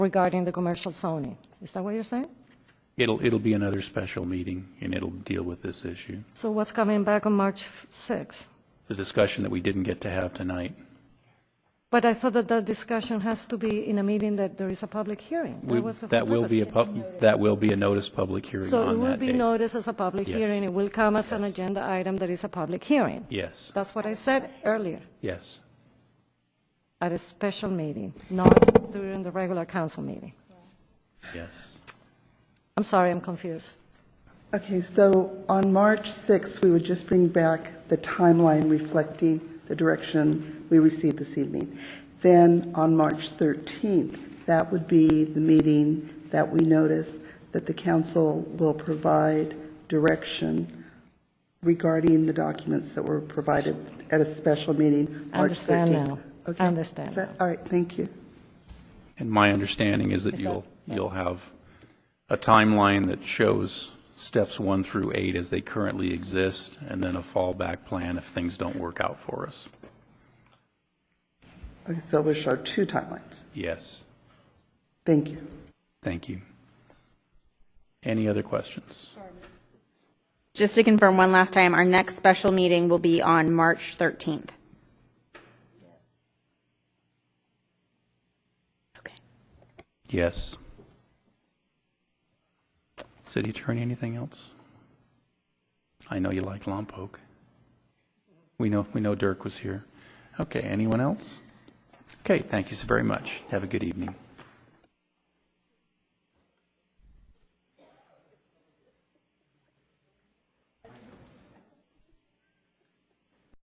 regarding the commercial zoning. Is that what you're saying? It'll, it'll be another special meeting, and it'll deal with this issue, So what's coming back on March 6th? the discussion that we didn't get to have tonight. But I thought that that discussion has to be in a meeting that there is a public hearing. We- was the That will purpose. be a pub, that will be a notice public hearing So it on will that be day. noticed as a public Yes. hearing. It will come as an agenda item that is a public hearing. Yes, That's what I said earlier, yes. at a special meeting, not during the regular council meeting. Yes. I'm sorry, I'm confused. Okay, so on March 6th, we would just bring back the timeline reflecting the direction we received this evening. Then on March 13th, that would be the meeting that we notice that the council will provide direction regarding the documents that were provided at a special meeting, I March 13th. understand now. I Okay. understand Is that- All right, thank you. And my understanding is that you'll, you'll have a timeline that shows steps one through eight as they currently exist, and then a fallback plan if things don't work out for us. Okay, so we'll show two timelines. Yes, Thank you. thank you. Any other questions? Just to confirm one last time, our next special meeting will be on March 13th. Okay. Yes. City Attorney, anything else? I know you like Lompoc. We know, we know Dirk was here. Okay, anyone else? Okay, thank you so very much. Have a good evening.